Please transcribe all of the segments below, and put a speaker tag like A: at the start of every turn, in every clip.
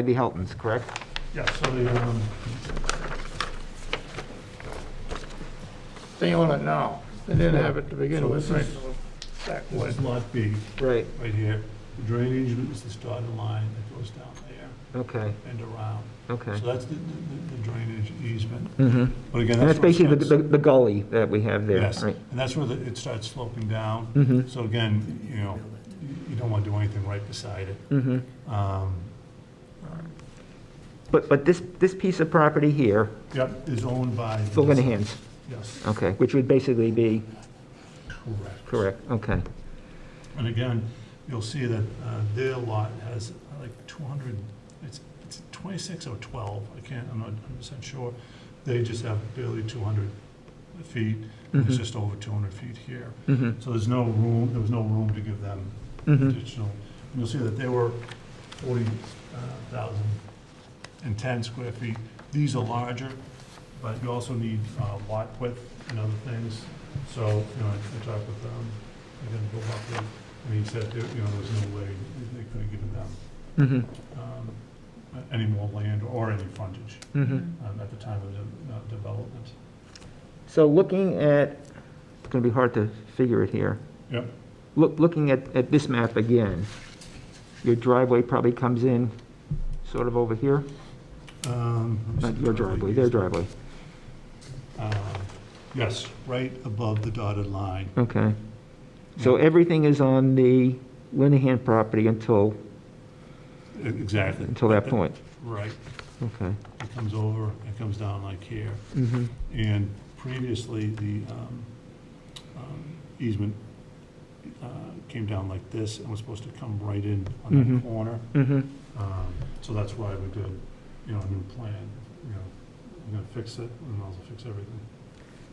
A: Andy Helton's, correct?
B: Yeah, so the, um,
C: They own it now. They didn't have it to begin
B: So
C: with,
B: this
C: right?
B: is-
C: Back
B: this
C: when.
B: is lot B,
A: Right,
B: right here. The Drainage is this dotted line that goes down there
A: okay,
B: and around.
A: okay.
B: So that's the, the- the the drainage easement.
A: Mhm.
B: But again,
A: And that's
B: that's where it
A: basically the- the
B: starts.
A: the gully that we have there,
B: Yes,
A: right?
B: and that's where the- it starts sloping down.
A: Mm-hmm,
B: So again, you know, you- you don't want to do anything right beside it.
A: mm-hmm.
B: Um,
A: But, but this, this piece of property here,
B: Yep, is owned by.
A: Phil Linehan's,
B: Yes,
A: okay, which would basically be, Oh.
B: correct.
A: correct, okay.
B: And again, you'll see that uh, their lot has uh, like 200, it's it's 26 or 12, I can't, I'm not 100% sure. They just have barely 200 feet, and it's
A: Mhm.
B: just over 200 feet here.
A: Mm-hmm,
B: So there's no room, there was no room to give them
A: mm-hmm,
B: additional. And You'll see that they were 40,000 and 10 square feet. These are larger, but you also need uh, lot width and other things. So, you know, I I talked with them, again, Bill Buckley, and he said, there- you know, there's no way they could have given them
A: mm-hmm,
B: um, any more land or any frontage
A: mm-hmm.
B: um, at the time of the uh, development.
A: So looking at, it's going to be hard to figure it here.
B: Yep.
A: Look, looking at, at this map again, your driveway probably comes in sort of over here,
B: Um, let me see
A: not
B: if
A: Uh, your
B: I can
A: driveway,
B: use
A: their
B: that.
A: driveway,
B: Um, Yes, right above the dotted line.
A: okay. So everything is on the Linehan property until,
B: E-, Exactly.
A: until that point,
B: Right.
A: okay.
B: It comes over, it comes down like here.
A: Mhm.
B: And previously, the um, um, easement uh, came down like this and was supposed to come right in on
C: Mm-hmm.
A: Mhm.
B: that corner.
A: Mhm.
B: Um, So that's why we did, you know, a new plan, you know, we're gonna fix it and also fix everything.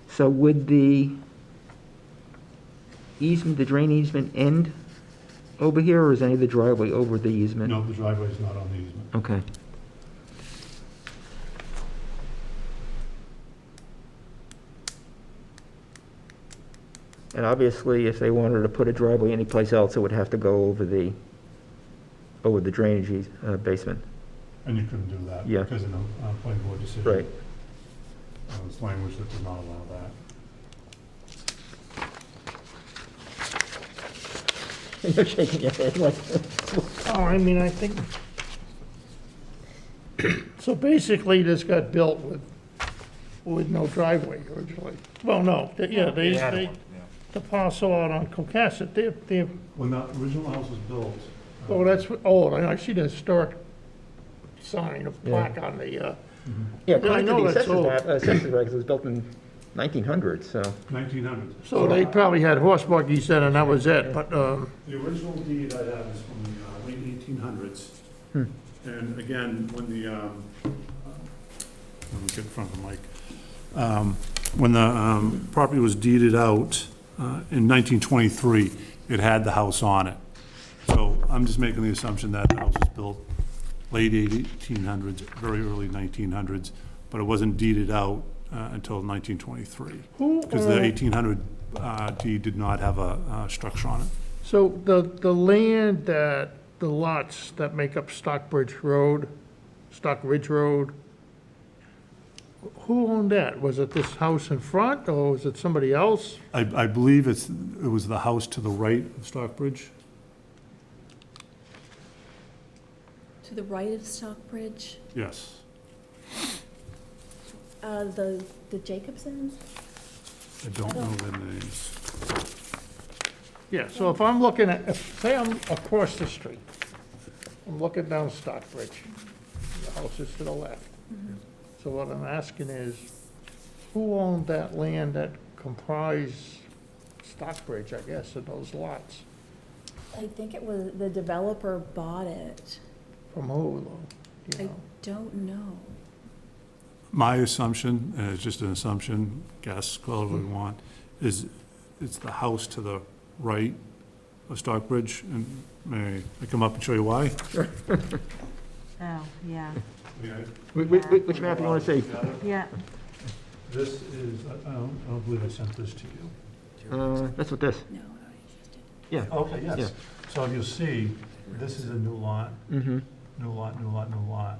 A: So would the easement, the drain easement end over here, or is any of the driveway over the easement?
B: No, the driveway's not on the easement.
A: Okay. And obviously, if they wanted to put a driveway anyplace else, it would have to go over the, over the drainage eas- uh, basement.
B: And you couldn't do that.
A: Yeah.
B: Because of the uh, planning board decision. Uh, It's language that does not allow that.
A: You're shaking your head like,
C: Oh, I mean, I think. So basically, this got built with, with no driveway originally. Well, no, they- yeah, they, they, the parcel out on Cohasset, they, they,
B: When that original house was built. uh,
C: oh, that's, what- oh, I see the historic sign, a plaque on the, uh,
A: yeah,
C: I
A: according to
C: know
A: the
C: that's
A: assessor's
C: old.
A: map, uh, assessor's records, it was built in 1900, so.
B: 1900.
C: so they probably had horse buggies then, and that was it, but, um,
B: The original deed I have is from the uh, late eighteen hundreds.
A: Hmm.
B: And again, when the, um, uh, let me get in front of the mic. Um, When the um, property was deeded out uh, in nineteen twenty-three, it had the house on it. So I'm just making the assumption that the house was built late eighteen hundreds, very early nineteen hundreds, but it wasn't deeded out uh, until nineteen twenty-three.
C: who?
B: Because the
C: uh,
B: 1800 uh, deed did not have a uh, structure on it.
C: So the, the land that, the lots that make up Stockbridge Road, Stock Ridge Road, who owned that? Was it this house in front, or was it somebody else?
B: I, I believe it's, it was the house to the right of Stockbridge.
D: To the right of Stockbridge,
B: Yes.
D: uh, the, the Jacobsons?
B: I don't know their names.
C: Yeah, so if I'm looking at, if- say I'm across the street, I'm looking down Stockbridge, the house is to the left. So what I'm asking is, who owned that land that comprised Stockbridge, I guess, and those lots?
D: I think it was, the developer bought it.
C: From who, though? Do
D: I
C: you know?
D: don't know.
B: My assumption, and it's just an assumption, guess, call it what
A: Hmm.
B: you want, is it's the house to the right of Stockbridge. And may I come up and show you why?
E: Oh, yeah,
A: Wh- wh- wh- Which map do you want to see?
E: yeah.
B: This is, I don't, I don't believe I sent this to you.
A: Uh, That's what this,
D: No, I just did.
A: yeah.
B: Okay,
A: Yeah.
B: yes. So if you see, this is a new lot.
A: Mm-hmm.
B: new lot, new lot, new lot.